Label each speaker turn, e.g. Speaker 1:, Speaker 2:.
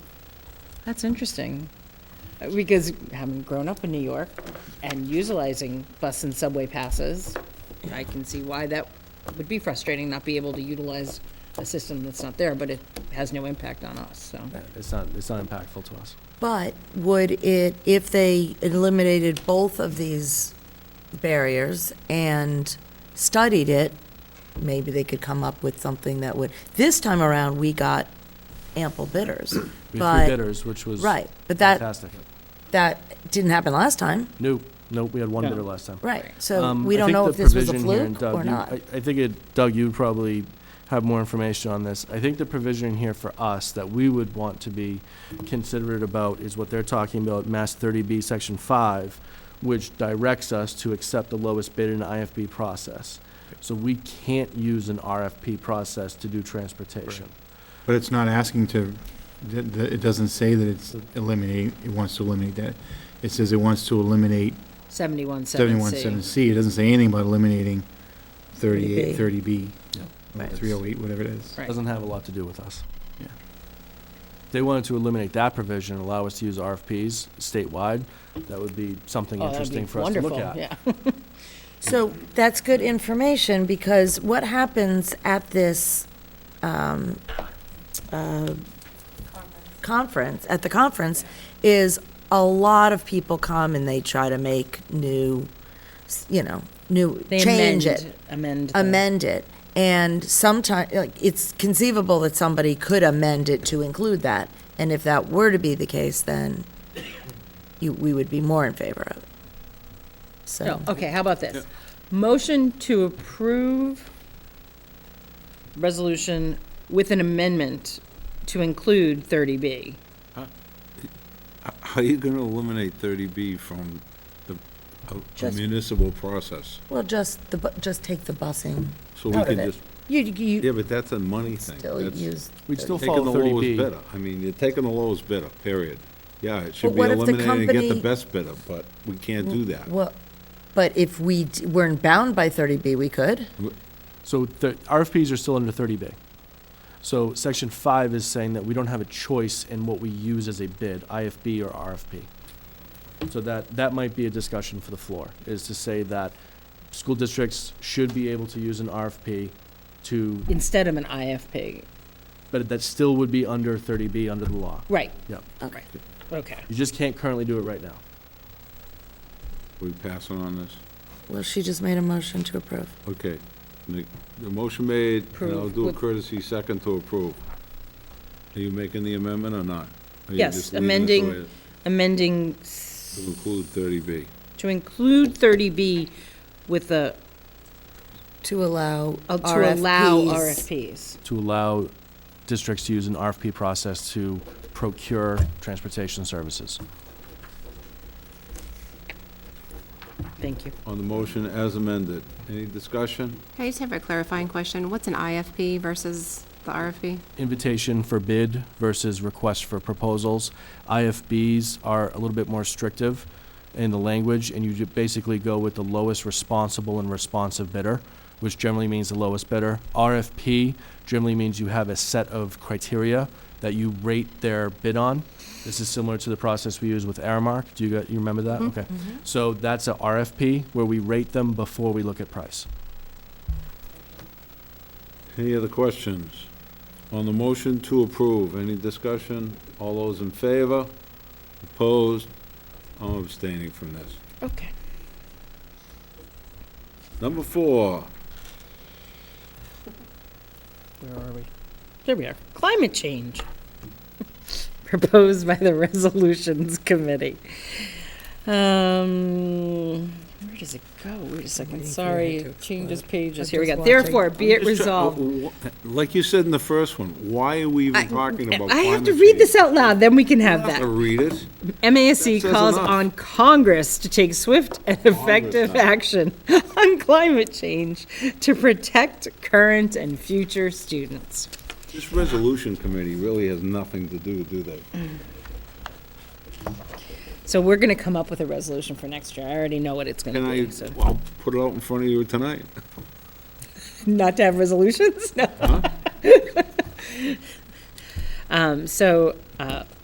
Speaker 1: That's interesting. Uh, Because having grown up in New York and utilizing bus and subway passes, I can see why that would be frustrating, not be able to utilize a system that's not there, but it has no impact on us, so.
Speaker 2: Yeah, It's not, it's not impactful to us.
Speaker 3: But would it, if they eliminated both of these barriers and studied it, maybe they could come up with something that would, this time around, we got ample bidders.
Speaker 2: We had
Speaker 3: But-
Speaker 2: three bidders, which was
Speaker 3: Right, but that,
Speaker 2: fantastic.
Speaker 3: that didn't happen last time,
Speaker 2: Nope, nope, we had one
Speaker 1: Yeah.
Speaker 2: bidder last time.
Speaker 3: right, so
Speaker 2: Um,
Speaker 3: we
Speaker 2: I
Speaker 3: don't
Speaker 2: think
Speaker 3: know
Speaker 2: the
Speaker 3: if this was a
Speaker 2: provision here, and
Speaker 3: fluke
Speaker 2: Doug,
Speaker 3: or
Speaker 2: you-
Speaker 3: not.
Speaker 2: I I think it, Doug, you probably have more information on this. I think the provision here for us that we would want to be considerate about is what they're talking about, Mass thirty B, section five, which directs us to accept the lowest bid in an IFB process. So we can't use an RFP process to do transportation.
Speaker 4: But it's not asking to, th- th- it doesn't say that it's eliminating, it wants to eliminate that. It says it wants to eliminate
Speaker 1: Seventy-one, seven
Speaker 4: seventy-one,
Speaker 1: C.
Speaker 4: seven C. It doesn't say anything about eliminating thirty-eight,
Speaker 3: 30B.
Speaker 4: thirty B.
Speaker 2: Yeah.
Speaker 3: Right.
Speaker 4: Three oh eight, whatever it is.
Speaker 1: Right.
Speaker 2: Doesn't have a lot to do with us.
Speaker 4: Yeah.
Speaker 2: They wanted to eliminate that provision and allow us to use RFPs statewide. That would be something
Speaker 1: Oh, that'd be
Speaker 2: interesting for us to look
Speaker 1: wonderful,
Speaker 2: at.
Speaker 1: yeah.
Speaker 3: So that's good information, because what happens at this, um, uh, conference, at the conference, is a lot of people come and they try to make new, s- you know, new,
Speaker 1: They
Speaker 3: change
Speaker 1: amend-
Speaker 3: it,
Speaker 1: Amend. the-
Speaker 3: amend it. And sometimes, like, it's conceivable that somebody could amend it to include that. And if that were to be the case, then you, we would be more in favor of it. So.
Speaker 1: No, okay, how about this? Motion to approve resolution with an amendment to include thirty B.
Speaker 5: H- How are you going to eliminate 30B from the a- a
Speaker 3: Just-
Speaker 5: municipal process?
Speaker 3: Well, just the, bu- just take the busing.
Speaker 5: So we
Speaker 3: Out of
Speaker 5: can
Speaker 3: it.
Speaker 5: just,
Speaker 3: You, you
Speaker 5: yeah, but that's a money thing.
Speaker 3: still
Speaker 5: That's
Speaker 3: use.
Speaker 2: We'd still
Speaker 5: Taking
Speaker 2: follow
Speaker 5: the
Speaker 2: thirty
Speaker 5: lowest
Speaker 2: B.
Speaker 5: bidder. I mean, you're taking the lowest bidder, period. Yeah, it
Speaker 3: But
Speaker 5: should be
Speaker 3: what if the
Speaker 5: eliminated and get the
Speaker 3: company-
Speaker 5: best bidder, but we can't do that.
Speaker 3: Well, but if we d- weren't bound by 30B, we could.
Speaker 2: So the RFPs are still under thirty B. So section five is saying that we don't have a choice in what we use as a bid, IFB or RFP. So that, that might be a discussion for the floor, is to say that school districts should be able to use an RFP to,
Speaker 1: instead of an IFP.
Speaker 2: but that still would be under thirty B under the law.
Speaker 1: Right,
Speaker 2: Yep.
Speaker 1: right, okay.
Speaker 2: You just can't currently do it right now.
Speaker 5: We passing on this?
Speaker 3: Well, she just made a motion to approve.
Speaker 5: Okay. The the motion made, and I'll
Speaker 1: Approve
Speaker 5: do a
Speaker 1: with-
Speaker 5: courtesy second to approve. Are you making the amendment or not? Or you
Speaker 1: Yes,
Speaker 5: just leaving it the
Speaker 1: amending-
Speaker 5: way it-
Speaker 1: Amending s-
Speaker 5: To include 30B.
Speaker 1: to include thirty B with the,
Speaker 3: To allow
Speaker 1: uh,
Speaker 3: RFPs.
Speaker 1: to allow RFPs.
Speaker 2: to allow districts to use an RFP process to procure transportation services.
Speaker 1: Thank you.
Speaker 5: On the motion as amended. Any discussion?
Speaker 6: I just have a clarifying question. What's an IFP versus the RFP?
Speaker 2: Invitation for bid versus request for proposals. IFBs are a little bit more restrictive in the language, and you ju- basically go with the lowest responsible and responsive bidder, which generally means the lowest bidder. RFP generally means you have a set of criteria that you rate their bid on. This is similar to the process we use with Aramark. Do you, got- you remember that? Okay.
Speaker 3: Mm-hmm.
Speaker 2: So that's a RFP where we rate them before we look at price.
Speaker 5: Any other questions? On the motion to approve, any discussion? All those in favor? Opposed? I'm abstaining from this.
Speaker 1: Okay.
Speaker 5: Number four,
Speaker 1: Where are we? There we are. Climate change. Proposed by the Resolutions Committee. Um, where does it go? Wait a second. Sorry, changes pages. Here we go. Therefore, be it resolved.
Speaker 5: like you said in the first one, why are we even talking about climate
Speaker 1: I have to read this
Speaker 5: change?
Speaker 1: out loud, then we can
Speaker 5: I
Speaker 1: have
Speaker 5: have to
Speaker 1: that.
Speaker 5: read it.
Speaker 1: MASC
Speaker 5: That says
Speaker 1: calls
Speaker 5: enough.
Speaker 1: on Congress to take swift and effective
Speaker 5: now.
Speaker 1: action on climate change to protect current and future students.
Speaker 5: This resolution committee really has nothing to do, do they?
Speaker 1: So we're gonna come up with a resolution for next year. I already know what it's
Speaker 5: Can
Speaker 1: gonna
Speaker 5: I,
Speaker 1: be, so.
Speaker 5: I'll put it out in front of you tonight.
Speaker 1: Not to have resolutions, no. Um, so, uh,